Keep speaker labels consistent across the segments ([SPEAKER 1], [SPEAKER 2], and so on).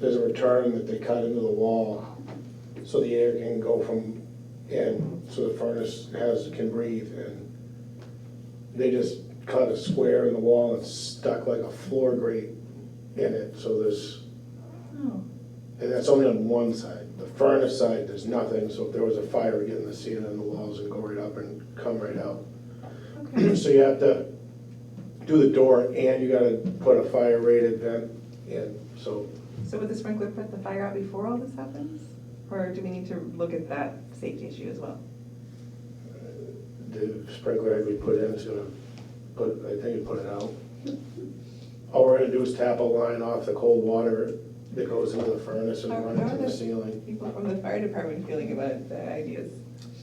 [SPEAKER 1] there's a return that they cut into the wall so the air can go from in, so the furnace has, can breathe and they just cut a square in the wall and stuck like a floor grate in it, so there's,
[SPEAKER 2] Oh,
[SPEAKER 1] and that's only on one side. The furnace side, there's nothing, so if there was a fire, we'd get in the ceiling and the walls and go right up and come right out.
[SPEAKER 2] okay.
[SPEAKER 1] So you have to do the door and you gotta put a fire rated vent in, so
[SPEAKER 2] So would the sprinkler put the fire out before all this happens? Or do we need to look at that safety issue as well?
[SPEAKER 1] the sprinkler head we put in is gonna put, I think it put it out. All we're gonna do is tap a line off the cold water that goes into the furnace and
[SPEAKER 2] How-
[SPEAKER 1] run it
[SPEAKER 2] how
[SPEAKER 1] to
[SPEAKER 2] are
[SPEAKER 1] the
[SPEAKER 2] the-
[SPEAKER 1] ceiling.
[SPEAKER 2] People from the fire department feeling about the ideas?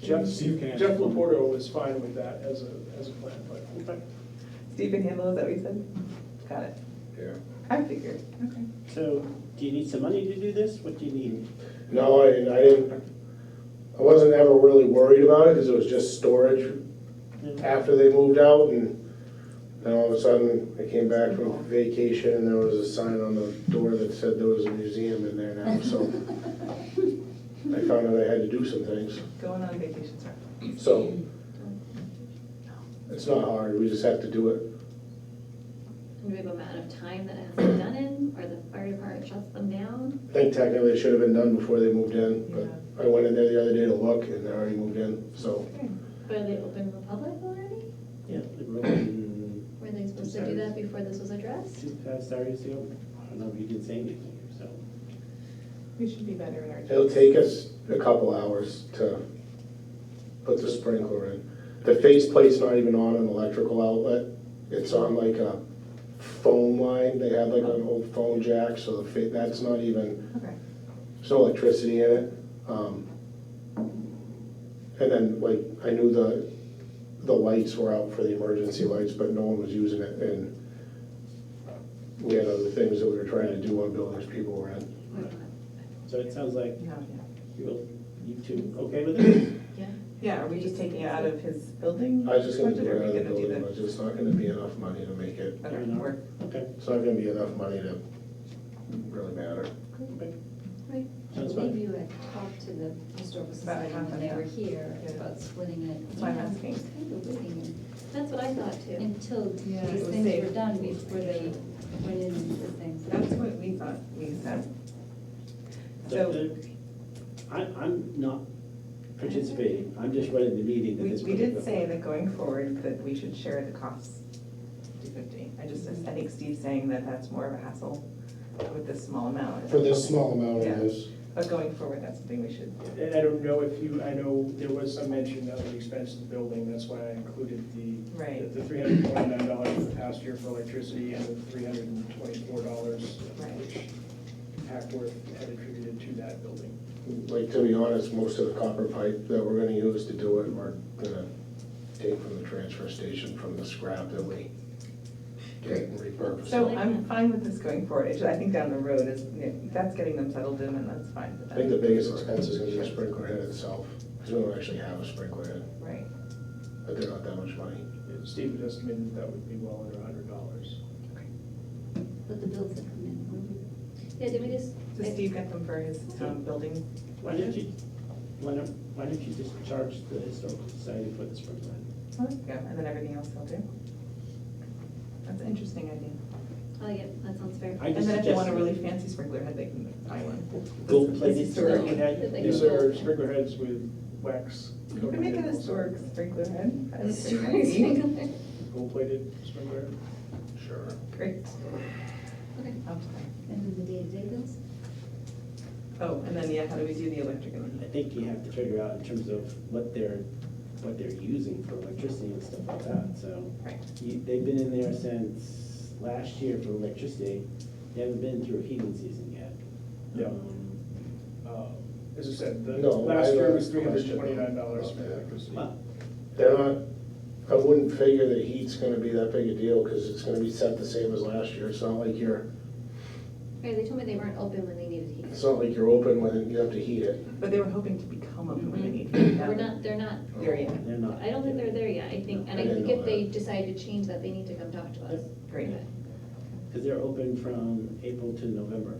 [SPEAKER 3] Jeff,
[SPEAKER 4] Steve can
[SPEAKER 3] Jeff
[SPEAKER 4] answer.
[SPEAKER 3] Laporto was fine with that as a, as a plan, but
[SPEAKER 2] Steve can handle, is that what you said? Got it.
[SPEAKER 1] Yeah.
[SPEAKER 2] I figured, okay.
[SPEAKER 5] So, do you need some money to do this? What do you need?
[SPEAKER 1] No, I, I didn't, I wasn't ever really worried about it, cause it was just storage after they moved out and then all of a sudden, I came back from vacation and there was a sign on the door that said there was a museum in there now, so. I found out I had to do some things.
[SPEAKER 2] Going on vacation, sorry.
[SPEAKER 1] So, it's not hard, we just have to do it.
[SPEAKER 6] Do we have amount of time that it has to be done in, or the fire department shuts them down?
[SPEAKER 1] I think technically it should have been done before they moved in,
[SPEAKER 2] Yeah.
[SPEAKER 1] but I went in there the other day to look and they already moved in, so.
[SPEAKER 2] Okay.
[SPEAKER 6] But are they open to the public already?
[SPEAKER 5] Yeah, the room,
[SPEAKER 6] Were they supposed to do that before this was addressed?
[SPEAKER 5] two past hours ago. I don't know if you did say anything, so.
[SPEAKER 2] We should be better in our.
[SPEAKER 1] It'll take us a couple hours to put the sprinkler in. The faceplate's not even on an electrical outlet, it's on like a phone line, they have like an old phone jack, so the fa- that's not even,
[SPEAKER 2] Okay,
[SPEAKER 1] There's no electricity in it. um, And then, like, I knew the, the lights were out for the emergency lights, but no one was using it, and we had other things that we were trying to do on buildings people were in.
[SPEAKER 5] So it sounds like
[SPEAKER 2] yeah, yeah.
[SPEAKER 5] you, you two okay with it?
[SPEAKER 6] Yeah.
[SPEAKER 2] Yeah, are we just taking it out of his building?
[SPEAKER 1] I was just gonna do
[SPEAKER 2] budget,
[SPEAKER 1] it
[SPEAKER 2] or are
[SPEAKER 1] out of
[SPEAKER 2] we
[SPEAKER 1] the
[SPEAKER 2] gonna do
[SPEAKER 1] building, but it's just not gonna be enough money to make it,
[SPEAKER 2] that?
[SPEAKER 5] Fair
[SPEAKER 2] Okay,
[SPEAKER 5] enough.
[SPEAKER 2] work.
[SPEAKER 5] Okay,
[SPEAKER 1] it's not gonna be enough money to really matter.
[SPEAKER 5] okay.
[SPEAKER 7] Right.
[SPEAKER 5] Sounds
[SPEAKER 7] Maybe
[SPEAKER 5] fine.
[SPEAKER 7] you had talked to the historical
[SPEAKER 2] About
[SPEAKER 7] society
[SPEAKER 2] half
[SPEAKER 7] when
[SPEAKER 2] of
[SPEAKER 7] they
[SPEAKER 2] that.
[SPEAKER 7] were here
[SPEAKER 2] Yeah.
[SPEAKER 7] about splitting it.
[SPEAKER 2] That's why I'm asking.
[SPEAKER 7] It's kind of waiting
[SPEAKER 6] That's what I thought too.
[SPEAKER 7] until
[SPEAKER 2] Yeah, it
[SPEAKER 7] these
[SPEAKER 2] was
[SPEAKER 7] things were
[SPEAKER 2] safe.
[SPEAKER 7] done before they went in and did
[SPEAKER 2] That's
[SPEAKER 7] things.
[SPEAKER 2] what we thought we said.
[SPEAKER 5] So
[SPEAKER 2] So
[SPEAKER 5] the- I, I'm not participating. I'm just running the meeting at
[SPEAKER 2] we,
[SPEAKER 5] this
[SPEAKER 2] we did
[SPEAKER 5] particular
[SPEAKER 2] say
[SPEAKER 5] point.
[SPEAKER 2] that going forward that we should share the costs, fifty fifty. I just, I think Steve's saying that that's more of a hassle with this small amount.
[SPEAKER 1] For this small amount
[SPEAKER 2] Yeah.
[SPEAKER 1] it is.
[SPEAKER 2] But going forward, that's something we should,
[SPEAKER 3] And I don't know if you, I know there was some mention of the expense of the building, that's why I included the,
[SPEAKER 2] right,
[SPEAKER 3] the three hundred twenty-nine dollars for the past year for electricity and the three hundred and twenty-four dollars,
[SPEAKER 2] Right.
[SPEAKER 3] which Hackworth had attributed to that building.
[SPEAKER 1] Like, to be honest, most of the copper pipe that we're gonna use to do it, we're gonna take from the transfer station from the scrap that we get and repurpose.
[SPEAKER 2] So I'm fine with this going forward, It's- I think down the road is, that's getting them settled in and that's fine.
[SPEAKER 1] I think the biggest expense is gonna be the sprinkler head itself, because we don't actually have a sprinkler head,
[SPEAKER 2] Right,
[SPEAKER 1] but they're not that much money.
[SPEAKER 3] Steve had estimated that would be well under hundred dollars.
[SPEAKER 7] But the bills that come in.
[SPEAKER 6] Yeah, did we just,
[SPEAKER 2] so Steve got them for his um, building,
[SPEAKER 5] Why didn't you, why don't, why didn't you just charge the historical society for the sprinkler?
[SPEAKER 2] Oh, there you go, and then everything else he'll do. That's an interesting idea.
[SPEAKER 6] oh yeah, that sounds fair.
[SPEAKER 5] I
[SPEAKER 2] And
[SPEAKER 5] just
[SPEAKER 2] then if they want a
[SPEAKER 5] suggested
[SPEAKER 2] really fancy sprinkler head, they can buy one.
[SPEAKER 5] gold plated
[SPEAKER 2] This is historic.
[SPEAKER 5] sprinkler head.
[SPEAKER 6] Like-
[SPEAKER 3] These are sprinkler heads with wax.
[SPEAKER 2] You can make an historic sprinkler head. That is pretty
[SPEAKER 6] Stories.
[SPEAKER 2] fancy.
[SPEAKER 3] Gold-plated sprinkler. head.
[SPEAKER 1] Sure.
[SPEAKER 2] Great.
[SPEAKER 6] Okay.
[SPEAKER 2] Up to
[SPEAKER 7] And then the day-to-day bills?
[SPEAKER 2] there. Oh, and then, yeah, how do we do the electric and
[SPEAKER 5] I
[SPEAKER 2] the
[SPEAKER 5] think you have to figure out in terms of what they're, what they're using for electricity and stuff like that, so.
[SPEAKER 2] Right.
[SPEAKER 5] You, they've been in there since last year for electricity, they haven't been through heating season yet.
[SPEAKER 3] Yeah.
[SPEAKER 5] Um,
[SPEAKER 3] Uh, As I said, the
[SPEAKER 1] No, I
[SPEAKER 3] last
[SPEAKER 1] have
[SPEAKER 3] year
[SPEAKER 1] a
[SPEAKER 3] was three hundred
[SPEAKER 1] question.
[SPEAKER 3] and twenty-nine dollars for electricity.
[SPEAKER 5] Well,
[SPEAKER 1] They're not, I wouldn't figure that heat's gonna be that big a deal, because it's gonna be set the same as last year, it's not like you're,
[SPEAKER 6] Right, they told me they weren't open when they needed heat.
[SPEAKER 1] it's not like you're open when you have to heat it.
[SPEAKER 2] But they were hoping to become open when they need.
[SPEAKER 6] Mm-hmm. We're not, they're not,
[SPEAKER 2] There yet.
[SPEAKER 5] They're not.
[SPEAKER 6] I don't think they're there yet, I think, and I
[SPEAKER 1] I didn't
[SPEAKER 6] think
[SPEAKER 1] know
[SPEAKER 6] if they
[SPEAKER 1] that.
[SPEAKER 6] decide to change that, they need to come talk to us.
[SPEAKER 2] Great.
[SPEAKER 6] Okay.
[SPEAKER 5] Because they're open from April to November.